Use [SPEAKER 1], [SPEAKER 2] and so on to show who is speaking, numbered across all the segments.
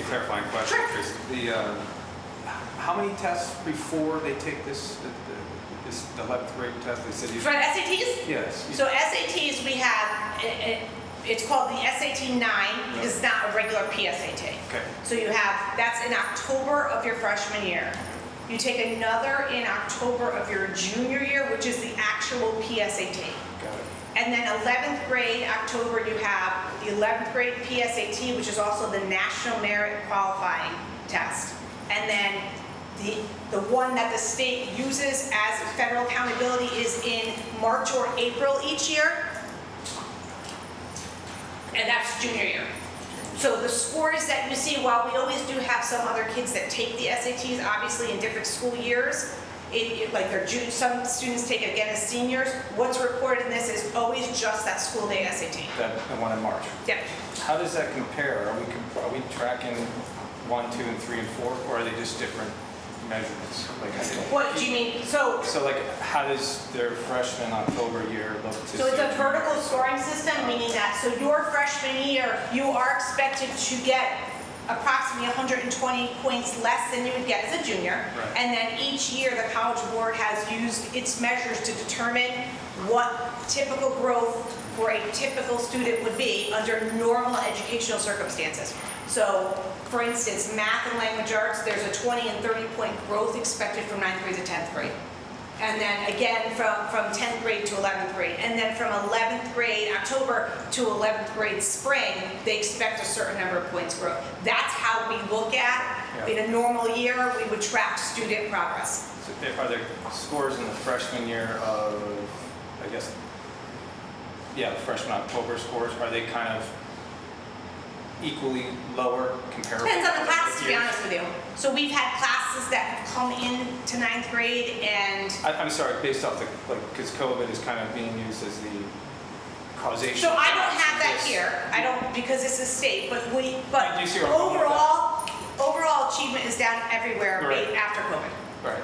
[SPEAKER 1] clarifying question,
[SPEAKER 2] Sure.
[SPEAKER 1] Tracy. The, uh, how many tests before they take this, the- the- this 11th grade test, they said you...
[SPEAKER 2] For SATs?
[SPEAKER 1] Yes. you-
[SPEAKER 2] So SATs, we have, it- it- it's called the SAT 9, it's not a regular PSAT.
[SPEAKER 1] Okay,
[SPEAKER 2] So you have, that's in October of your freshman year. You take another in October of your junior year, which is the actual PSAT.
[SPEAKER 1] got it.
[SPEAKER 2] And then 11th grade, October, you have the 11th grade PSAT, which is also the National Merit Qualifying Test. And then the, the one that the state uses as federal accountability is in March or April each year. And that's junior year. So the scores that you see, while we always do have some other kids that take the SATs, obviously in different school years, it, it- like their junior, some students take it again as seniors, what's recorded in this is always just that school day SAT.
[SPEAKER 1] That, the one in March.
[SPEAKER 2] Yeah,
[SPEAKER 1] How does that compare? Are we, comp- are we tracking one, two, and three, and four, or are they just different measurements? Like, I didn't-
[SPEAKER 2] what do you mean, so,
[SPEAKER 1] So like, how does their freshman October year look to...
[SPEAKER 2] so it's a vertical scoring system, meaning that, so your freshman year, you are expected to get approximately 120 points less than you would get as a junior.
[SPEAKER 1] Right.
[SPEAKER 2] And then each year, the College Board has used its measures to determine what typical growth for a typical student would be under normal educational circumstances. So, for instance, math and language arts, there's a 20 and 30 point growth expected from ninth grade to 10th grade. And then again, from, from 10th grade to 11th grade. And then from 11th grade October to 11th grade spring, they expect a certain number of points growth. That's how we look at, in a normal year, we would track student progress.
[SPEAKER 1] So there- Are there scores in the freshman year of, I guess, yeah, the freshman October scores, are they kind of equally lower comparable?
[SPEAKER 2] Depends on the class, to be
[SPEAKER 1] years?
[SPEAKER 2] honest with you. So we've had classes that have come in to ninth grade and,
[SPEAKER 1] I, I'm sorry, based off the, like, because COVID is kind of being used as the causation.
[SPEAKER 2] so I don't have that
[SPEAKER 1] Yes.
[SPEAKER 2] here. I don't, because it's a state, but we, but
[SPEAKER 1] I do see where I'm going with that.
[SPEAKER 2] overall, overall achievement is down everywhere ba-
[SPEAKER 1] Right.
[SPEAKER 2] after COVID.
[SPEAKER 1] Right.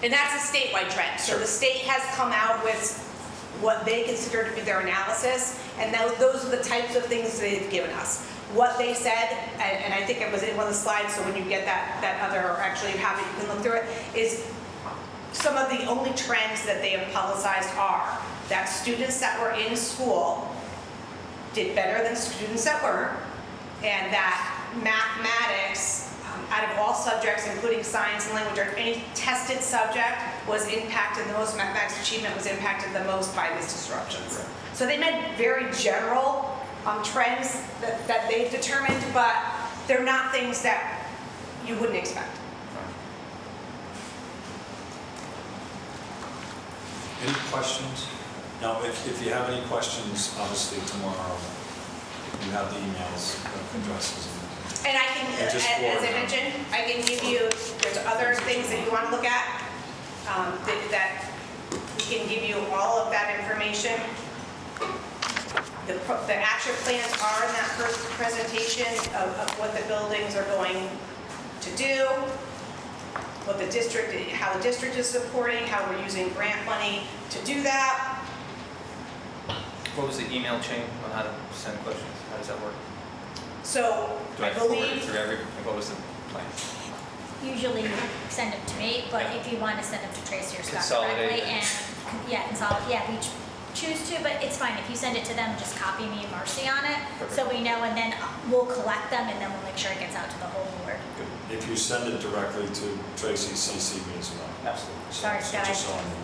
[SPEAKER 2] And that's a statewide trend. So
[SPEAKER 1] Sure.
[SPEAKER 2] the state has come out with what they consider to be their analysis, and tho- those are the types of things they've given us. What they said, and and I think it was in one of the slides, so when you get that, that other, or actually you have it, you can look through it, is some of the only trends that they have publicized are that students that were in school did better than students that weren't, and that mathematics, um, out of all subjects, including science and language arts, any tested subject was impacted the most, mathematics achievement was impacted the most by these disruptions. So they meant very general um, trends that, that they've determined, but they're not things that you wouldn't expect.
[SPEAKER 3] Any questions? Now, if, if you have any questions, obviously tomorrow, you have the emails, uh, addresses. and-
[SPEAKER 2] And I can,
[SPEAKER 3] And
[SPEAKER 2] as
[SPEAKER 3] just
[SPEAKER 2] as I
[SPEAKER 3] forward.
[SPEAKER 2] mentioned, I can give you, there's other things that you want to look at, um, that, that we can give you all of that information. The, pro- the action plans are in that first presentation of, of what the buildings are going to do, what the district, how the district is supporting, how we're using grant money to do that.
[SPEAKER 4] What was the email chain on how to send questions? How does that work?
[SPEAKER 2] So
[SPEAKER 4] Do
[SPEAKER 2] I
[SPEAKER 4] I forward it
[SPEAKER 2] believe,
[SPEAKER 4] through every, what was the plan?
[SPEAKER 5] usually send them to me, but
[SPEAKER 4] Yeah.
[SPEAKER 5] if you want to send them to Tracy or Scott
[SPEAKER 4] Consolidate
[SPEAKER 5] directly,
[SPEAKER 4] it.
[SPEAKER 5] and, yeah, consolidate, yeah, we ch- choose to, but it's fine, if you send it to them, just copy me and Marcy on it, so we know, and then uh, we'll collect them, and then we'll make sure it gets out to the whole board.
[SPEAKER 3] If you send it directly to Tracy, CC me as well.
[SPEAKER 1] Absolutely.
[SPEAKER 3] So-
[SPEAKER 5] Sorry,
[SPEAKER 3] so just so I know.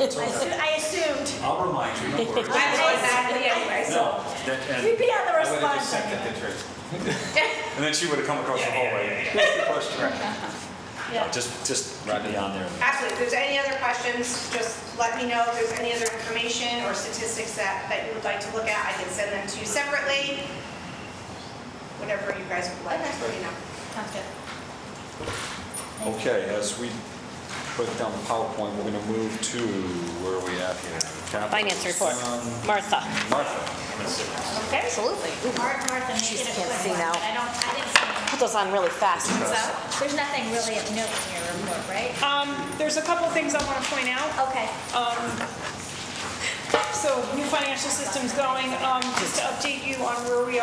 [SPEAKER 3] It's
[SPEAKER 5] I
[SPEAKER 3] okay.
[SPEAKER 5] assu- I assumed,
[SPEAKER 3] I'll remind you, no worries.
[SPEAKER 2] I know exactly, anyway, so.
[SPEAKER 3] No, that- and,
[SPEAKER 5] we'd be on the
[SPEAKER 1] I would have just sent
[SPEAKER 5] response.
[SPEAKER 1] it to Tracy.
[SPEAKER 3] and then she would have come across the hallway.
[SPEAKER 5] Yeah.
[SPEAKER 3] No, Just, just keep me on there.
[SPEAKER 2] Absolutely, if there's any other questions, just let me know if there's any other information or statistics that, that you would like to look at, I can send them to you separately. Whatever you guys would like, let me know.
[SPEAKER 5] Sounds good.
[SPEAKER 3] Okay, as we put down the PowerPoint, we're gonna move to, where are we at here? Capital.
[SPEAKER 6] Finance report.
[SPEAKER 3] Um,
[SPEAKER 6] Martha.
[SPEAKER 3] Martha,
[SPEAKER 6] Absolutely.
[SPEAKER 5] Martha, Martha
[SPEAKER 6] She
[SPEAKER 5] made it a
[SPEAKER 6] just
[SPEAKER 5] quick
[SPEAKER 6] can't see
[SPEAKER 5] one,
[SPEAKER 6] now.
[SPEAKER 5] but I don't, I didn't see anything.
[SPEAKER 6] Put those on really fast.
[SPEAKER 5] So, there's nothing really of note in your report, right?
[SPEAKER 7] Um, there's a couple things I want to point out.
[SPEAKER 6] Ah.
[SPEAKER 5] Okay,
[SPEAKER 7] So new financial system's going, um, just to update you on where we